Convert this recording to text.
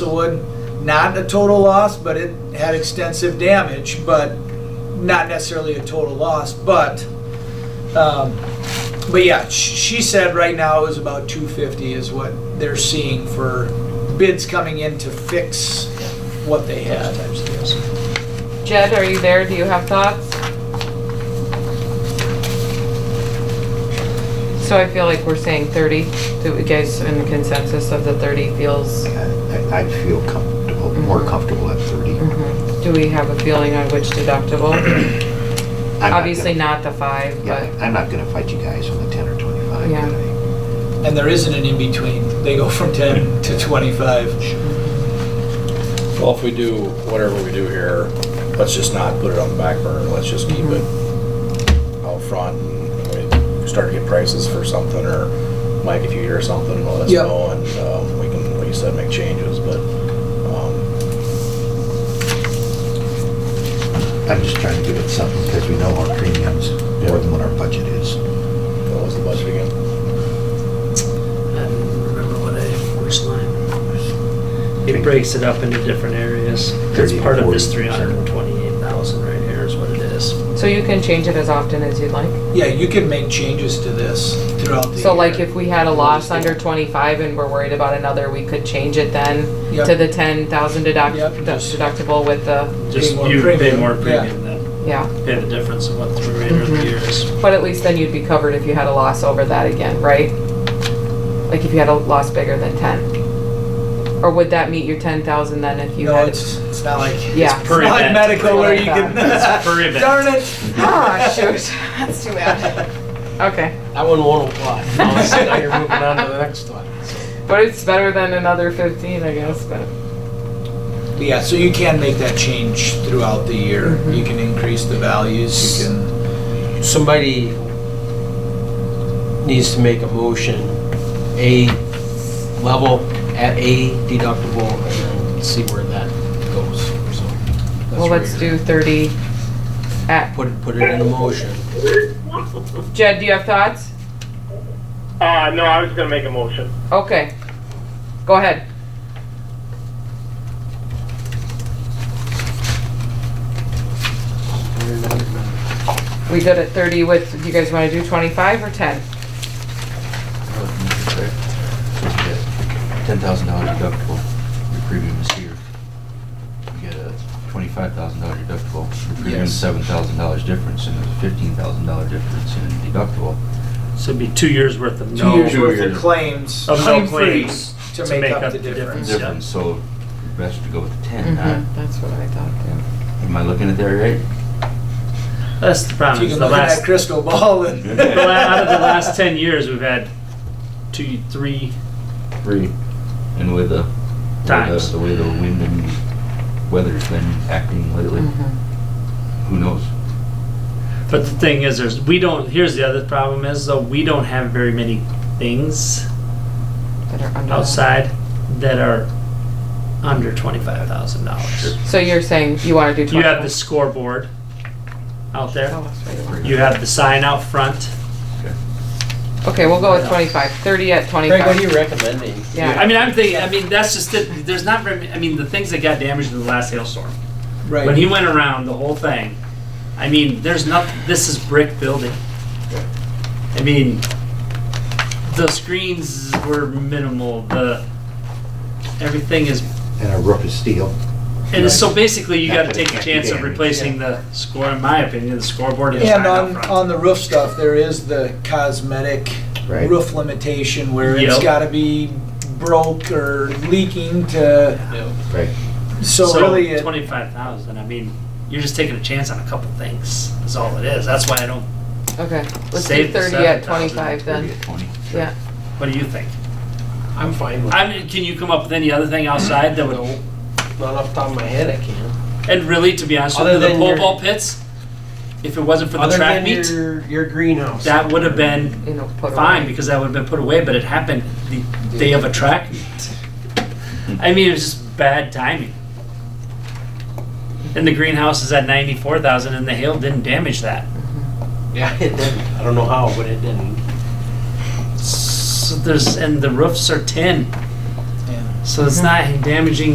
Castlewood, not a total loss, but it had extensive damage, but not necessarily a total loss, but, um, but yeah, sh- she said right now it was about two fifty is what they're seeing for bids coming in to fix what they had. Jed, are you there? Do you have thoughts? So I feel like we're saying thirty, do you guys in the consensus of the thirty feels? I- I'd feel comfortable, more comfortable at 30. I'm Mhm. Do we have a feeling on which deductible? not gonna- Obviously not the five, Yeah, but, I'm not gonna fight you guys on the 10 or 25. Yeah. but And there isn't an in-between. They go from ten to twenty-five. Well, if we do whatever we do here, let's just not put it on the back burner, let's just keep it out front. and we Start to get prices for something, or Mike, if you hear something, let us Yep. know, and um, we can, like you said, make changes, but, um, I'm just trying to give it something because we know our premiums more than what our budget is. what was the budget again? I don't remember what I, which line. It breaks it up into different areas. It's 30, part of this 40, three sure. hundred and twenty-eight thousand right here is what it is. so you can change it as often as you'd like. Yeah, you can make changes to this throughout the So like year. if we had a loss under twenty-five and we're worried about another, we could change it then to Yep. the ten thousand deduct, Yep. deductible with the, Just more you pay premium, more yeah. premium than, yeah. pay the difference of what the remainder of the Mhm. year is. But at least then you'd be covered if you had a loss over that again, right? Like if you had a loss bigger than ten? Or would that meet your ten thousand then if you No, had? it's, it's not like, it's Yeah. per- not like event. medical where you Like can. that. It's per event. Darn it. Ah, shoot, that's too bad. Okay, I wouldn't want to apply. So Oh, now you're moving on to the next one. but it's better than another fifteen, I guess, but, Yeah, so you can make that change throughout the year. Mm-hmm. You can increase the values, you can, Somebody needs to make a motion, a level at a deductible, and then see where that goes, so. that's well, where let's you're- do thirty at, Put, put it in a motion. Jed, do you have thoughts? Uh, no, I was gonna make a motion. Okay, go ahead. We good at thirty with, do you guys wanna do twenty-five or ten? 10,000 dollar deductible, your premium is here. You get a 25,000 dollar deductible, your premium is Yes. 7,000 dollars difference, and there's a 15,000 dollar difference in deductible. So it'd be two years worth of two no. years Two worth of years. claims, Of no claim free, claims to make up the difference. Yeah. Difference, so best to go with the 10, huh? uh, That's what I thought, too. Am I looking at that right? That's the If problem, you is can the look at that last, crystal ball and. the la- out of the last ten years, we've had two, three, Three. And with the with the- Times. the way the wind and weather's been acting lately, Mm. Mm-hmm. who knows? But the thing is, there's we don't. Here's the other problem is though we don't have very many things That are under. outside that are under twenty five thousand dollars. So you're saying you wanna do You have twenty-five? the scoreboard out there. Oh, that's what you want. You have the sign out front. Okay, we'll go with twenty-five, thirty at Craig, what are you twenty-five. recommending? Yeah. I mean, I'm thinking. I mean, that's just it. There's not. very many- I mean, the things that got damaged in the last hailstorm. When he Right, went around the whole thing, I mean, there's nothing. This is brick building. I mean, the screens were minimal. The everything is And a roof is steel. And so basically, you Not gotta that it take a can't be chance of damaged. replacing the score, in my opinion, the scoreboard and the sign and up on, front. on the roof stuff, there is the cosmetic Right. roof limitation where it's Yep. gotta be broke or leaking to, Right. so really it. Twenty-five thousand, I mean, you're just taking a chance on a couple things, is all it is, that's why I don't, Okay, let's do Save the thirty at 7,000. twenty-five then, yeah. what do you think? I'm fine with it. I mean, can you come up with any other thing outside that would, No, Not off the top of my head, I can't. and really, to be honest with you, Other the than pole your- vault pits, if it wasn't for the Other track than meet, your, your greenhouse. that would have been You know, put away. fine because that would have been put away, but it happened the day of a track meet. I mean, it was just bad timing. And the greenhouse is at 94,000 and the hail didn't damage that. Yeah, it didn't. I don't know how, but it didn't. So there's, and the roofs are tin. Yeah. So it's not damaging